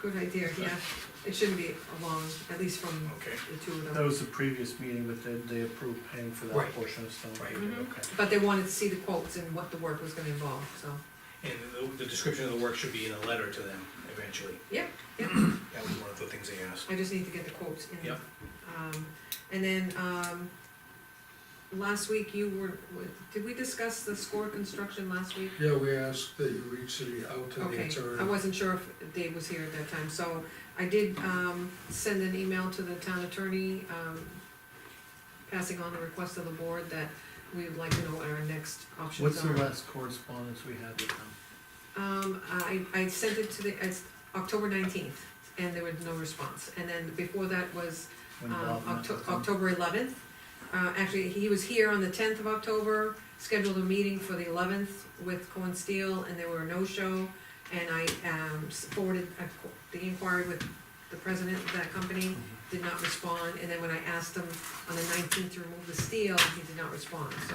Good idea, yeah, it shouldn't be along, at least from Okay. the two of That them. was the previous meeting, but they, they approved paying for that Right. portion of stone Right. paving, Mhm. okay. But they wanted to see the quotes and what the work was gonna involve, so, And the, the description of the work should be in a letter to them eventually. yeah, That was one of the things they asked. I just need to get the quotes in. Yep. Um, and then, um, last week you were, did we discuss the score construction last week? Yeah, we asked that you reach the- out to the Okay, I attorney. wasn't sure if Dave was here at that time, so I did, um, send an email to the town attorney, um, passing on the request of the board that we would like to know what our next options What's are. the last correspondence we had with them? Um, I, I sent it to the, it's October nineteenth, and there was no response, and then before that was, When um, Bob met Octo- with them? October eleventh. Uh, actually, he was here on the tenth of October, scheduled a meeting for the eleventh with Cohen Steel, and there were no show. And I, um, forwarded a qu- the inquiry with the president of that company, Mm-hmm. did not respond, and then when I asked him on the nineteenth to remove the steel, he did not respond, so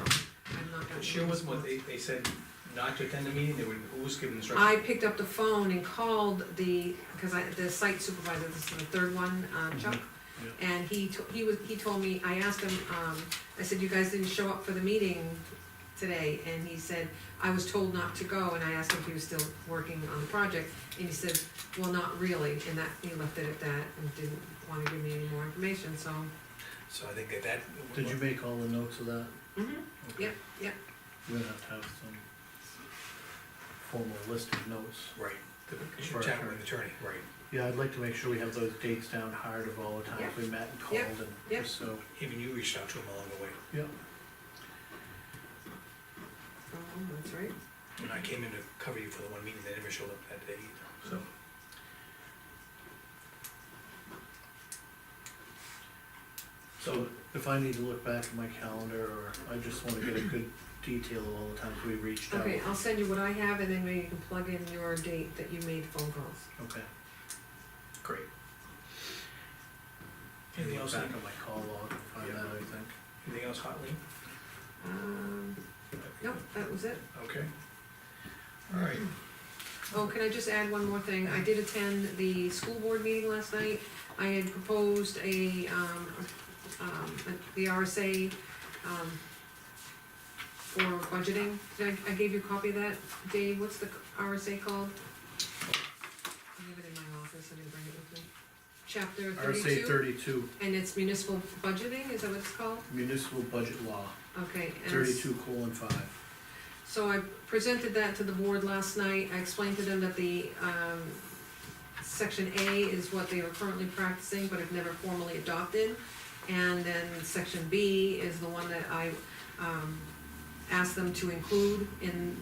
I'm not gonna. Share with them what they, they said not to attend the meeting, they were, who was given I instructions? picked up the phone and called the, because I, the site supervisor, this is the third one, uh, Chuck. And he, to- he was, he told me, I asked him, um, I said, you guys didn't show up for the meeting today, and he said, I was told not to go, and I asked him if he was still working on the project, and he said, well, not really, and that, he left it at that, and didn't wanna give me any more information, so. So I think that that. Did you make all the notes of that? mhm. Okay. Yep, yep. We're gonna have to have some formal list of notes. Right, the, you should For chat attorney. with the attorney, right. Yeah, I'd like to make sure we have those dates down hard of all the times we met and Yep. called Yep. and so, Even you reached out to him along the way, yeah. Oh, that's right. and I came in to cover you for the one meeting, they never showed up that day either, so. So if I need to look back at my calendar, or I just wanna get a good detail of all the times we reached out. Okay, I'll send you what I have, and then maybe you can plug in your date that you made phone calls. Okay. Great. Anything Look else, Back on my call log and find Yeah. out, I think. anything else hotly? Um, no, that was it. Okay. All right, Oh, can I just add one more thing? I did attend the school board meeting last night. I had proposed a, um, um, the RSA, um, for budgeting. Did I, I gave you a copy of that, Dave? What's the RSA called? I have it in my office, I didn't bring it with me. Chapter RSA thirty-two, thirty-two, and it's municipal budgeting, is that what it's called? municipal budget law, Okay. and it's- thirty-two colon five. So I presented that to the board last night, I explained to them that the, um, section A is what they are currently practicing, but have never formally adopted. And then section B is the one that I, um, asked them to include in,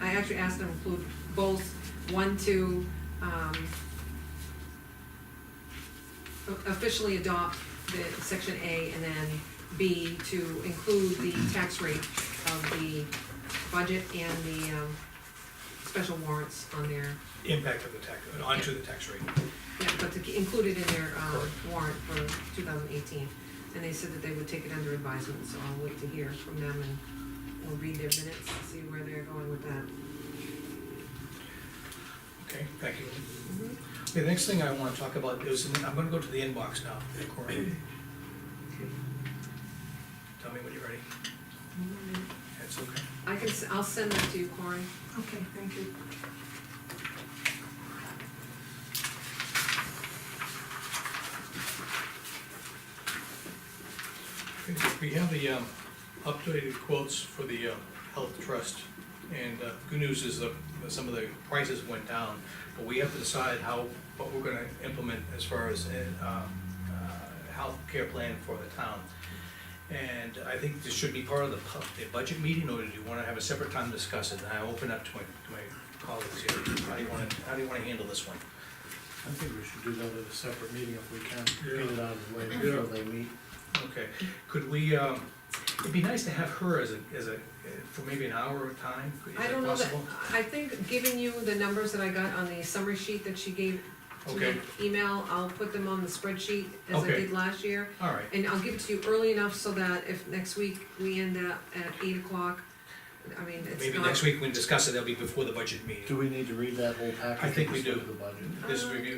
I actually asked them to include both, one to, um, officially adopt the section A and then B to include the tax rate of the budget and the, um, special warrants on their, impact of the tax, onto the tax rate. yeah, but to include it in their, um, Correct. warrant for two thousand eighteen. And they said that they would take it under advisement, so I'll wait to hear from them and we'll read their minutes and see where they're going with that. Okay, thank you. The next thing I wanna talk about is, I'm gonna go to the inbox now, Cory. Tell me when you're ready. That's okay. I can, s- I'll send that to you, Cory. Okay, thank you. We have the um, updated quotes for the uh, health trust, and uh, good news is that some of the prices went down, but we have to decide how, what we're gonna implement as far as uh, uh, healthcare plan for the town. And I think this should be part of the pu- the budget meeting, or do you wanna have a separate time to discuss it? And I open up to my, to my colleagues here, how do you wanna, how do you wanna handle this one? I think we should do that at a separate meeting if we can, Yeah. get it out of the way before they meet. Okay, could we, um, it'd be nice to have her as a, as a, for maybe an hour of time, is I that don't know that, possible? I think giving you the numbers that I got on the summary sheet that she gave to the Okay. email, I'll put them on the spreadsheet as I Okay. did last year. All right, And I'll give it to you early enough so that if next week we end up at eight o'clock, I mean, it's not. Maybe next week we can discuss it, that'll be before the budget Do meeting. we need to read that whole package? I think we instead do. of The budget. This review,